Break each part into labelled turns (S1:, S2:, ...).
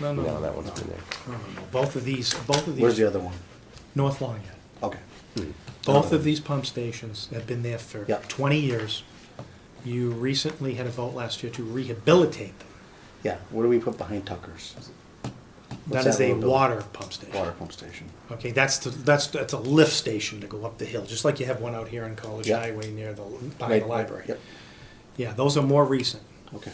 S1: No, no,
S2: No,
S1: no,
S2: that one's been there.
S1: no, no, no. both of these, both of these.
S3: Where's the other one?
S1: North Longyear.
S3: Okay.
S1: Hmm. Both of these pump stations have been there for
S3: Yeah.
S1: twenty years. You recently had a vote last year to rehabilitate them.
S3: Yeah, what do we put behind Tucker's? What's
S1: That is
S3: that
S1: a
S3: little building?
S1: water pump station.
S3: Water pump station.
S1: Okay, that's, the- that's, that's a lift station to go up the hill, just like you have one out here on College
S3: Yeah.
S1: Highway near the, by
S3: Right,
S1: the
S3: right,
S1: library.
S3: Yep,
S1: Yeah, those are more recent.
S3: okay.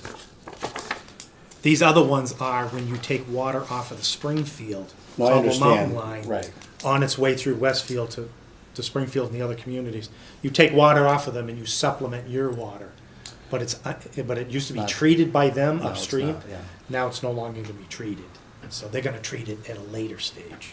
S1: These other ones are when you take water off of the Springfield,
S3: No, I
S1: Cobble Mountain
S3: understand,
S1: line.
S3: right.
S1: On its way through Westfield to, to Springfield and the other communities. You take water off of them and you supplement your water. But it's, uh, but it used to be
S3: Not-
S1: treated by them
S3: No, it's
S1: upstream.
S3: not, yeah.
S1: Now it's no longer gonna be treated. So they're gonna treat it at a later stage.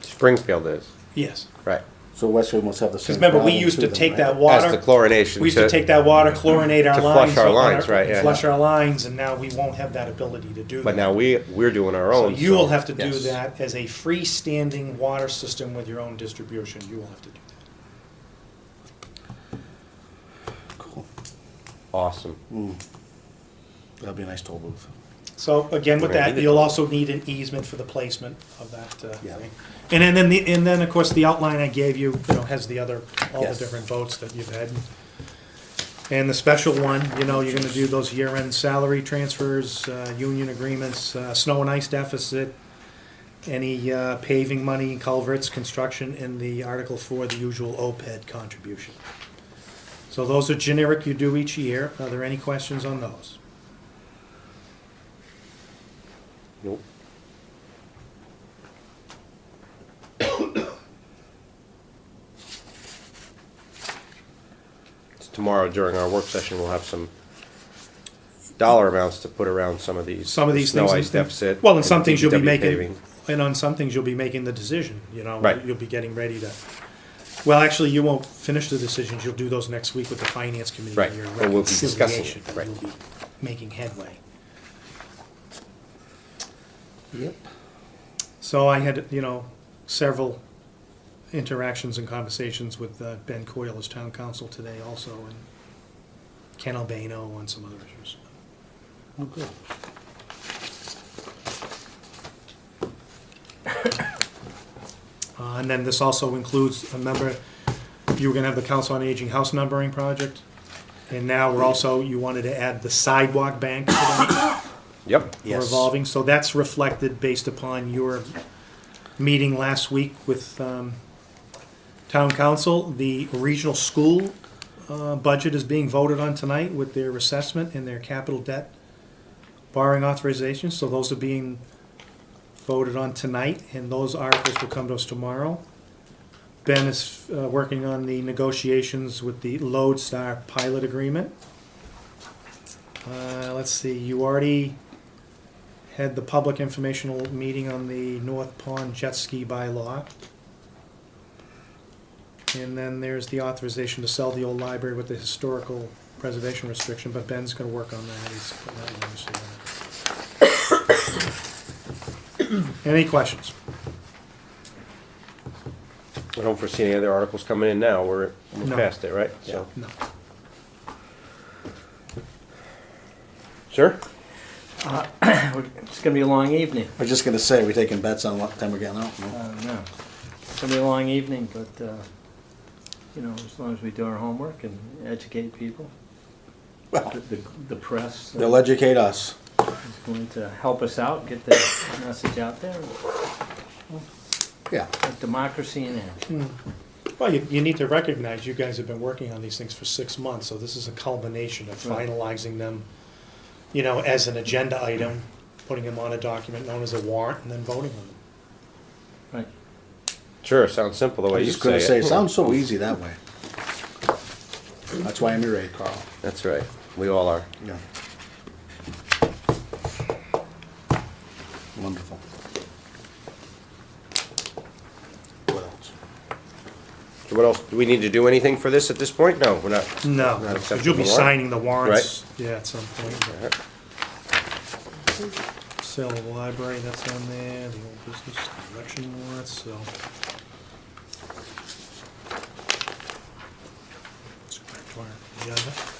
S2: Springfield is,
S1: Yes.
S2: right.
S3: So Westwood must have the same.
S1: Because remember, we
S3: problem
S1: used
S3: too
S1: to
S3: then,
S1: take
S3: right?
S1: that
S2: That's
S1: water.
S2: the chlorination.
S1: We used to take that water, chlorinate our
S2: to
S1: lines.
S2: flush our
S1: on
S2: lines, right, yeah.
S1: Flush our lines, and now we won't have that ability to do that.
S2: But now we, we're doing our
S1: So
S2: own.
S1: you will have to do
S3: yes.
S1: that as a freestanding water system with your own distribution, you will have to do that.
S3: Cool.
S2: Awesome.
S3: That'd be a nice toll booth.
S1: So again, with
S2: We're gonna
S1: that,
S2: need it.
S1: you'll also need an easement for the placement of that, uh,
S3: Yeah.
S1: thing. And then- then, the- and then, of course, the outline I gave you, you know, has the other, all the
S3: Yes.
S1: different votes that you've had. And the special one, you know, you're gonna do those year-end salary transfers, uh, union agreements, uh, snow and ice deficit, any uh, paving money, culverts, construction, and the Article for the usual OPED contribution. So those are generic you do each year. Are there any questions on those?
S2: Nope. So Tomorrow during our work session, we'll have some dollar amounts to put around some of these.
S1: Some of these
S2: snow
S1: things.
S2: ice deficit.
S1: Well, and some things you'll be
S2: DPW
S1: making,
S2: paving.
S1: and on some things you'll be making the decision, you know.
S2: Right.
S1: You'll be getting ready to, well, actually, you won't finish the decisions. You'll do those next week with the finance committee.
S2: Right,
S1: and your
S2: but we'll be discussing it,
S1: reconciliation, but
S2: right.
S1: You'll be making headway.
S3: Yep.
S1: So I had, you know, several interactions and conversations with uh, Ben Coyle as town council today also, and Ken Albano on some other issues.
S3: Oh, good.
S1: Uh, And then this also includes, remember, you were gonna have the Council on Aging House Numbering Project? And now we're also, you wanted to add the sidewalk bank to that
S2: Yep.
S3: Yes.
S1: revolving, so that's reflected based upon your meeting last week with, um, Town Council. The regional school, uh, budget is being voted on tonight with their assessment and their capital debt borrowing authorizations, so those are being voted on tonight, and those articles will come to us tomorrow. Ben is uh, working on the negotiations with the Lodestar pilot agreement. Uh, Let's see, you already had the public informational meeting on the North Pond jet ski bylaw. And then there's the authorization to sell the old library with the historical preservation restriction, but Ben's gonna work on that, he's putting that in there, so, uh, Any questions?
S2: I don't foresee any other articles coming in now. We're,
S1: No.
S2: we're past it, right? So,
S1: No.
S2: sir?
S4: It's gonna be a long evening.
S3: I was just gonna say, are we taking bets on what time we're getting out?
S4: I
S3: Oh, No?
S4: don't know. It's gonna be a long evening, but, uh, you know, as long as we do our homework and educate people, the,
S3: Well,
S4: the, the press
S3: they'll
S4: uh,
S3: educate us.
S4: is going to help us out, get the message out there,
S3: Yeah.
S4: Put democracy in action.
S1: Well, you, you need to recognize you guys have been working on these things for six months, so this is a culmination of
S4: Right.
S1: finalizing them, you know, as an agenda item, putting them on a document known as a warrant, and then voting on them.
S4: Right.
S2: Sure, sounds simple the
S3: I
S2: way
S3: was
S2: you
S3: just gonna
S2: say
S3: say,
S2: it.
S3: it sounds so easy that way. That's why I'm your aide, Carl.
S2: That's right. We all are.
S3: Yeah. Wonderful. What else?
S2: So what else? Do we need to do anything for this at this point? No, we're not.
S1: No,
S2: Not
S1: because you'll be
S2: acceptable warrant?
S1: signing the warrants, yeah, at some point. Sale of the library, that's on there, the old business election warrants, so. Let's go back to our agenda.